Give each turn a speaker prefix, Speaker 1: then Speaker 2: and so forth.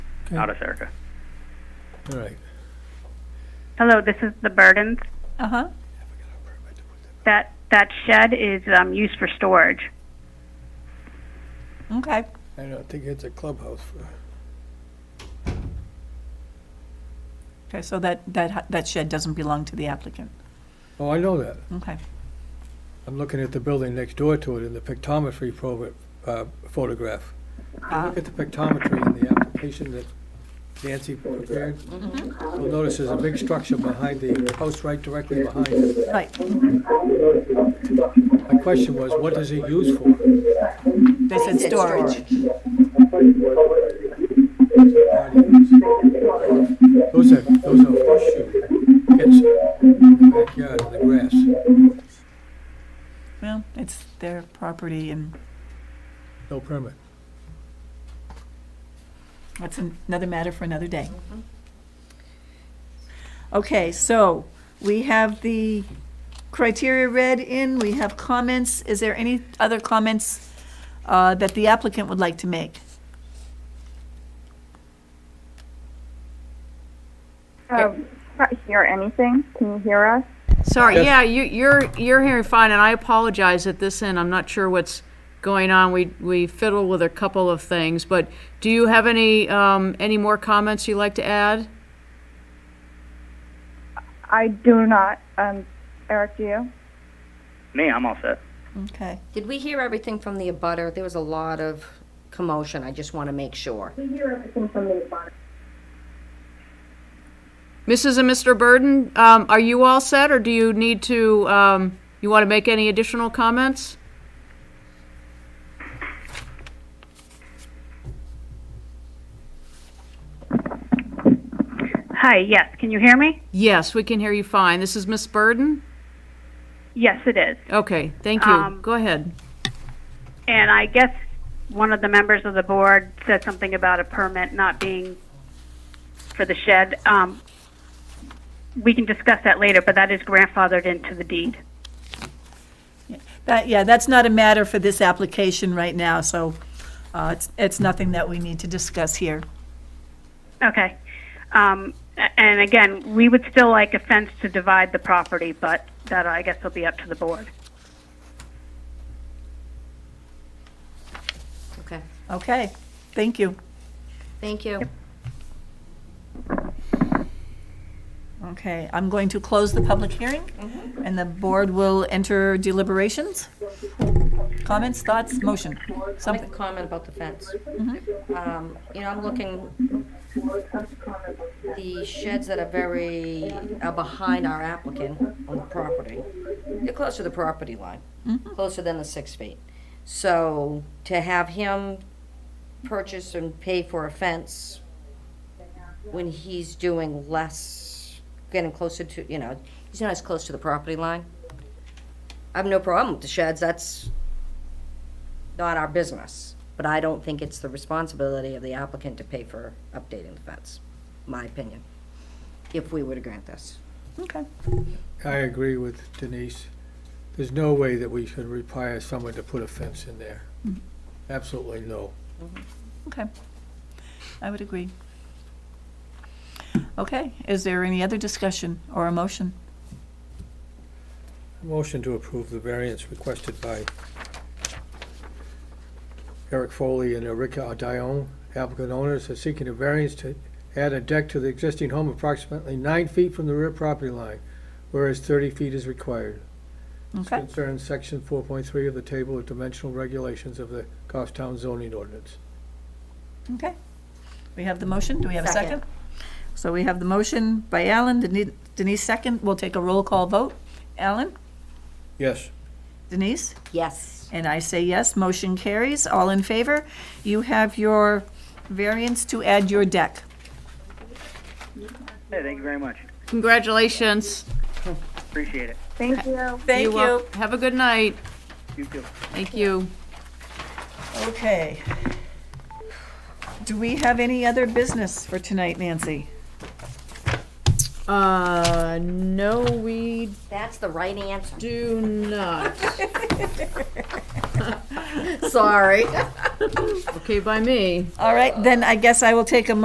Speaker 1: out of Serica.
Speaker 2: All right.
Speaker 3: Hello, this is the Burdens.
Speaker 4: Uh-huh.
Speaker 3: That, that shed is um, used for storage.
Speaker 4: Okay.
Speaker 2: I don't think it's a clubhouse. for-
Speaker 4: Okay, so that, that, hu- that shed doesn't belong to the applicant.
Speaker 2: Oh, I know that.
Speaker 4: Okay.
Speaker 2: I'm looking at the building next door to it in the pictometry program, uh, photograph.
Speaker 4: Ah,
Speaker 2: Look at the pictometry in the application that Nancy prepared. You'll notice there's a big structure behind the house right directly behind it.
Speaker 4: Right,
Speaker 2: My question was, what is it used for?
Speaker 4: they said storage.
Speaker 2: Those are, those are horseshoe pits in the backyard in the grass.
Speaker 4: Well, it's their property and
Speaker 2: No permit.
Speaker 4: that's an- another matter for another day. Mm-hmm. Okay, so we have the criteria read in, we have comments. Is there any other comments uh, that the applicant would like to make?
Speaker 5: So, can't hear anything? Can you hear us?
Speaker 6: Sorry,
Speaker 2: Yes.
Speaker 6: yeah, you, you're, you're hearing fine, and I apologize at this end, I'm not sure what's going on, we, we fiddle with a couple of things, but do you have any, um, any more comments you'd like to add?
Speaker 5: I do not. Um, Eric, do you?
Speaker 1: Me, I'm all set.
Speaker 4: Okay.
Speaker 7: Did we hear everything from the abutter? There was a lot of commotion. I just want to make sure.
Speaker 6: Mrs. and Mr. Burden, um, are you all set, or do you need to, um, you want to make any additional comments?
Speaker 3: Hi, yes, can you hear me?
Speaker 6: Yes, we can hear you fine, this is Miss Burden?
Speaker 3: Yes, it is.
Speaker 6: Okay, thank you,
Speaker 3: Um,
Speaker 6: go ahead.
Speaker 3: And I guess one of the members of the board said something about a permit not being for the shed. Um, we can discuss that later, but that is grandfathered into the deed.
Speaker 4: That, yeah, that's not a matter for this application right now, so uh, it's, it's nothing that we need to discuss here.
Speaker 3: Okay. Um, a- and again, we would still like a fence to divide the property, but that I guess will be up to the board.
Speaker 7: Okay.
Speaker 4: Okay, thank you.
Speaker 7: Thank you.
Speaker 4: Okay, I'm going to close the public hearing, and the board will enter deliberations. Comments, thoughts, motion,
Speaker 7: I'll make a
Speaker 4: something.
Speaker 7: comment about the fence. Um, You know, I'm looking, the sheds that are very, are behind our applicant on the property, they're close to the property line, closer than the six feet. So to have him purchase and pay for a fence when he's doing less, getting closer to, you know, he's not as close to the property line. I have no problem with the sheds, that's not our business, but I don't think it's the responsibility of the applicant to pay for updating the fence, my opinion, if we were to grant this.
Speaker 4: Okay,
Speaker 2: I agree with Denise. There's no way that we should require someone to put a fence in there. Absolutely no.
Speaker 4: okay. I would agree. Okay, is there any other discussion or a motion?
Speaker 2: Motion to approve the variance requested by Eric Foley and Erica Dion, applicant owners, are seeking a variance to add a deck to the existing home approximately nine feet from the rear property line, whereas thirty feet is required. This
Speaker 4: Okay.
Speaker 2: Concerns section four point three of the table of dimensional regulations of the Goffstown zoning ordinance.
Speaker 4: Okay. We have the motion. Do we have a
Speaker 7: Second.
Speaker 4: second? So we have the motion by Alan, Deni- Denise second. We'll take a roll call vote. Alan?
Speaker 2: Yes.
Speaker 4: Denise?
Speaker 7: Yes.
Speaker 4: And I say yes. Motion carries. All in favor? You have your variance to add your deck.
Speaker 1: Hey, thank you very much.
Speaker 6: Congratulations.
Speaker 1: Appreciate it.
Speaker 5: Thank you.
Speaker 4: Thank
Speaker 6: wel- Have a good night,
Speaker 1: You too.
Speaker 6: thank you.
Speaker 4: Okay. Do we have any other business for tonight, Nancy?
Speaker 6: Uh, no, we
Speaker 7: That's the right answer.
Speaker 6: do not.
Speaker 7: Sorry.
Speaker 6: Okay, by me.
Speaker 4: All right, then I guess I will take a